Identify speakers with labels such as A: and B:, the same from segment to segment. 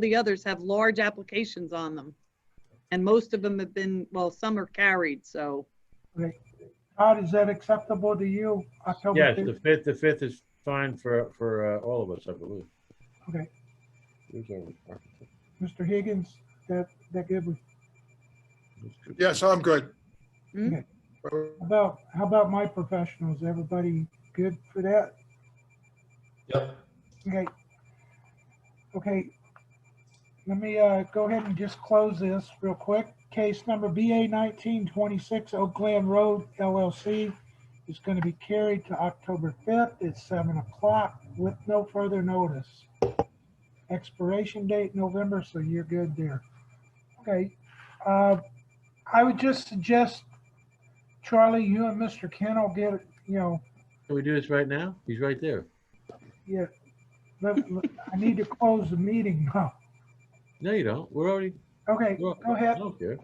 A: the others have large applications on them. And most of them have been, well, some are carried, so
B: Todd, is that acceptable to you? October
C: Yes,
B: fifth?
C: the fifth, the fifth is fine for, for uh, all of us, I believe.
B: Okay.
C: Who's our-
B: Mr. Higgins, that, that good with,
D: Yes, I'm good.
A: Hmm?
B: how about, how about my professionals? Everybody good for that?
E: Yep.
B: Okay. Okay. Let me, uh, go ahead and just close this real quick. Case number BA nineteen twenty-six Oak Glen Road LLC is gonna be carried to October fifth at seven o'clock with no further notice. Expiration date November, so you're good there. Okay, uh, I would just suggest, Charlie, you and Mr. Kennel get, you know,
C: Can we do this right now? He's right there.
B: yeah, let- let- I need to close the meeting now.
C: No, you don't. We're already.
B: Okay,
C: we're-
B: go ahead.
C: I do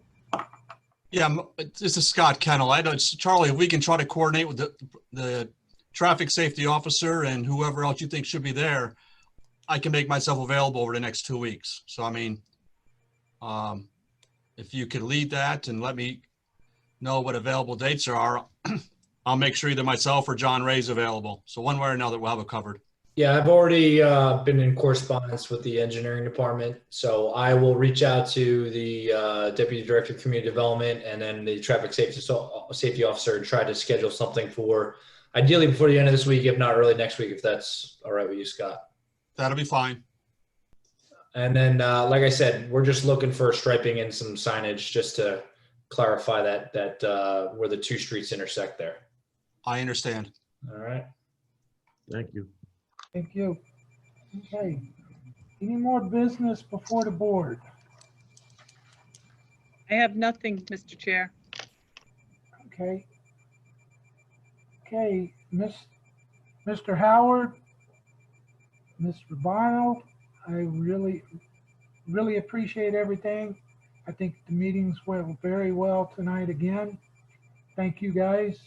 E: Yeah, m- this is Scott Kennel. I know, Charlie, if we can try to coordinate with the, the traffic safety officer and whoever else you think should be there, I can make myself available over the next two weeks. So I mean, um, if you could lead that and let me know what available dates there are, I'll make sure either myself or John Ray's available. So one way or another, we'll have it covered.
F: Yeah, I've already uh, been in correspondence with the engineering department, so I will reach out to the uh, deputy director of community development and then the traffic safety so, uh, safety officer and try to schedule something for ideally before the end of this week, if not early next week, if that's all right with you, Scott.
E: That'll be fine.
F: And then, uh, like I said, we're just looking for striping and some signage just to clarify that that uh, where the two streets intersect there.
E: I understand.
F: All right.
C: Thank you.
B: Thank you. Okay, any more business before the board?
A: I have nothing, Mr. Chair.
B: Okay. Okay, Miss, Mr. Howard, Mr. Bono, I really, really appreciate everything. I think the meetings went very well tonight again. Thank you guys,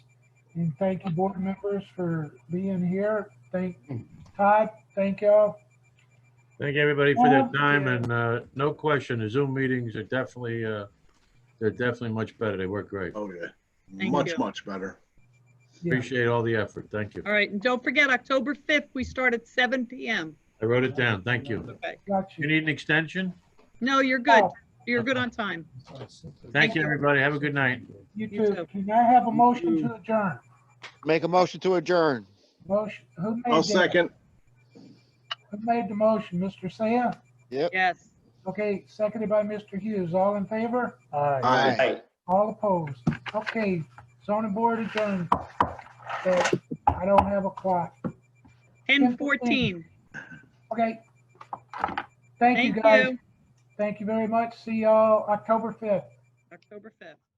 B: and thank you board members for being here. Thank Todd, thank y'all.
C: Thank everybody for their
B: Thank
C: time
B: you.
C: and, uh, no question, the Zoom meetings are definitely, uh, they're definitely much better. They work great.
D: Oh, yeah.
A: Thank
D: Much,
A: you.
D: much better.
B: Yeah.
C: Appreciate all the effort. Thank you.
A: All right, and don't forget, October 5th, we start at 7 PM.
C: I wrote it down. Thank you.
A: Okay.
B: Got
C: You
B: you.
C: need an extension?
A: No, you're good.
B: Oh.
A: You're good on time.
C: Thank you, everybody. Have a good night.
B: You
A: You
B: too.
A: too.
B: Can I have a motion to adjourn?
G: Make a motion to adjourn.
B: Motion, who made
D: I'll
B: that?
D: second.
B: Who made the motion? Mr. Saya?
A: Yes.
B: Okay, seconded by Mr. Hughes. All in favor?
D: Aye.
B: All opposed? Okay, zoning board adjourned. Uh, I don't have a clock.
A: 10:14.
B: Okay. Thank you,
A: Thank
B: guys.
A: you.
B: Thank you very much. See y'all October 5th.
A: October 5th.